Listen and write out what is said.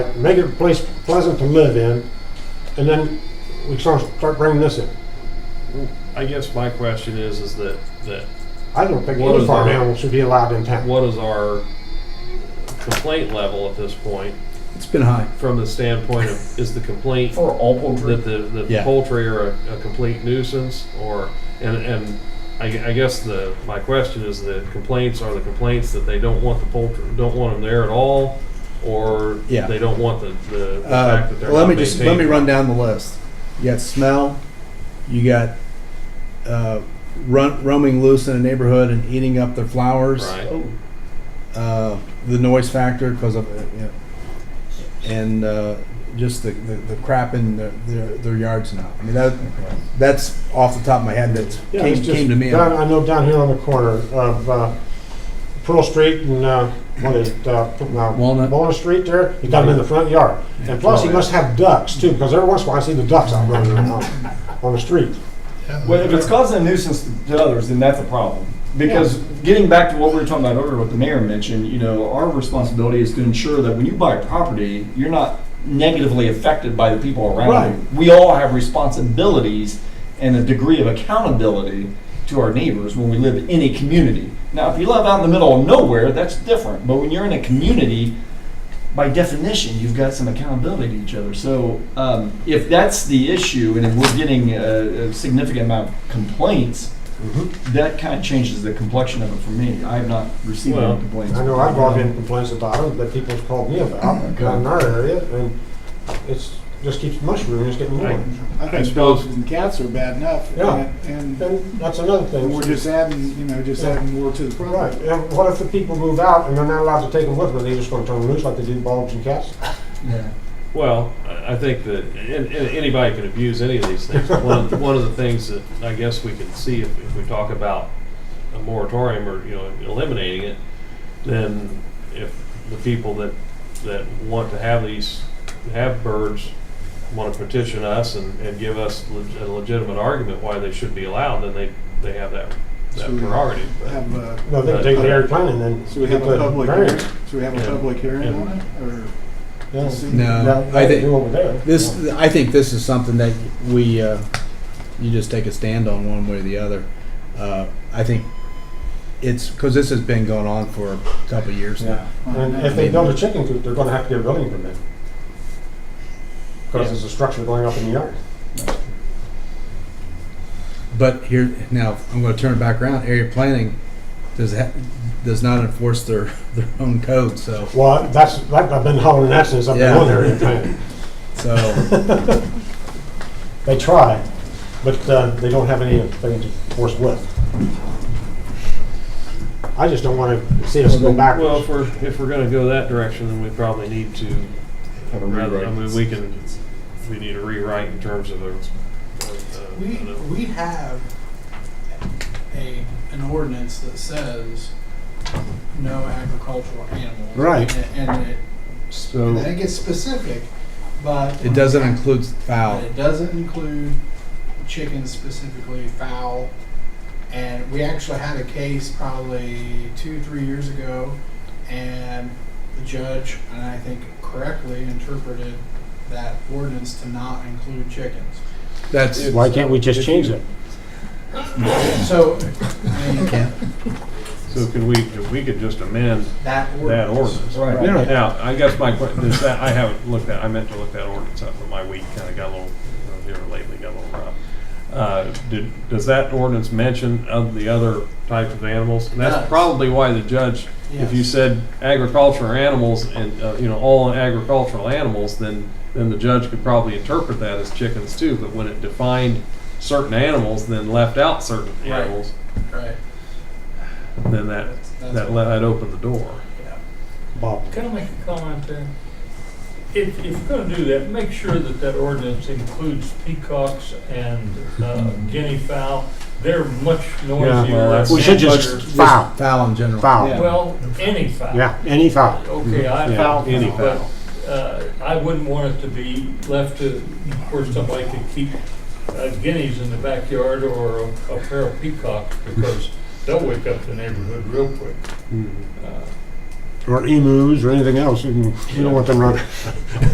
make it a place pleasant to live in, and then we start, start bringing this in. I guess my question is, is that, that I don't think What any is farm that? animal should be allowed in town. what is our complaint level at this point It's been high. from the standpoint of, is the complaint For all poultry. that the, that the Yeah. poultry are a, a complete nuisance or, and, and I, gue- I guess the, my question is the complaints are the complaints that they don't want the poultry, don't want them there at all? Or Yeah. they don't want the, the the Uh, fact that they're let not me just let me maintained? run down the list. You got smell. You got uh, run, roaming loose in a neighborhood and eating up their flowers. Right, Oh, Uh, the noise factor because of uh, you know, and uh, just the, the, the crap in their, their, their yards now. I mean that that's off the top of my head that Yeah, came, it's just came to me. uh, Down, I know down here on the corner of uh, Pearl Street and uh, what is it, uh, now Walnut. Walnut Street there. He's got them in the front yard, and plus he Oh, yeah. must have ducks too, because every once in a while I see the ducks out running around on the street. Well, if it's causing a nuisance to to others, then that's a problem. Because getting back to what we were talking about earlier, what the mayor mentioned, you know, our responsibility is to ensure that when you buy property, you're not negatively affected by the people Right. around you. We all have responsibilities and a degree of accountability to our neighbors when we live in a community. Now, if you live out in the middle of nowhere, that's different. But when you're in a community, by definition, you've got some accountability to each other. So um, if that's the issue, and if we're getting a, a significant amount of complaints, Mm-hmm. that kind of changes the complexion of it for me. I have not received Well, any complaints. I know I've brought in complaints about them that people have called me about Okay. down in our area, and it's just keeps mushrooming, it's getting more. Right. I I think suppose- dogs and cats are bad enough. Yeah. And, and And that's another thing. we're just adding, you know, just adding more to the Right, problem. and what if the people move out and they're not allowed to take them with them, they're just gonna turn them loose like they do dogs and cats? Yeah. well, I I think that, and, and anybody can abuse any of these things. One of, the- one of the things that I guess we can see if, if we talk about a moratorium or, you know, eliminating it, then if the people that, that want to have these, have birds, want to petition us and, and give us leg- a legitimate argument why they should be allowed, then they, they have that, that So we prerogative. but- Have uh, a, No, they can take the area planning then. so we have a But- public, hearing- so we have Yeah. a public hearing Yeah. on it, or? Yeah. No, That- I that think- you over there. This, I think this is something that we, uh, you just take a stand on one way or the other. Uh, I think it's, because this has been going on for a couple of years now. And if they build a chicken coop, they're gonna have to get a building permit. Cause there's a structure going up in the yard. But here, now, I'm gonna turn it back around, area planning does, ha- does not enforce their, their own code, so, Well, that's, that, I've been hollering that since I've been Yeah. on area planning. so, They try, but uh, they don't have anything to force with. I just don't wanna see us go Well, backwards. if we're, if we're gonna go that direction, then we probably need to, Have a rather, I rewrite. mean, we can, we need a rewrite in terms of a. of, uh, We, I don't know. we have a, an ordinance that says no agricultural animals. Right. And and it, and So, it gets specific, but. it doesn't include But foul. it doesn't include chickens specifically, fowl. And we actually had a case probably two, three years ago, and the judge, and I think correctly, interpreted that ordinance to not include chickens. That's, Why can't we just change it? So, I mean, So can we, we could just amend that that ordinance. ordinance. right. Yeah. Now, I guess my question is that, I haven't looked at, I meant to look that ordinance up, but my week kinda got a little, you know, here lately got a little rough. Uh, did, does that ordinance mention of the other types of animals? And that's Does. probably why the judge, if you Yes. said agricultural animals and, uh, you know, all agricultural animals, then, then the judge could probably interpret that as chickens too, but when it defined certain animals, then left out certain Right. animals, Right. then that, That's- that let, that opened the door. yeah. Bob, Can I make a comment there? If, if you're gonna do that, make sure that that ordinance includes peacocks and uh, guinea fowl. They're much well, noisier. that's- we should just Bugger. foul, foul in general. foul. Well, any fowl. Yeah, any foul. Okay, I Yeah, foul, any but, fowl. uh, I wouldn't want it to be left to, where somebody could keep uh, guineas in the backyard or a a pair of peacocks, because they'll wake up the neighborhood real quick. Uh, Or emus or anything else, we don't want them running.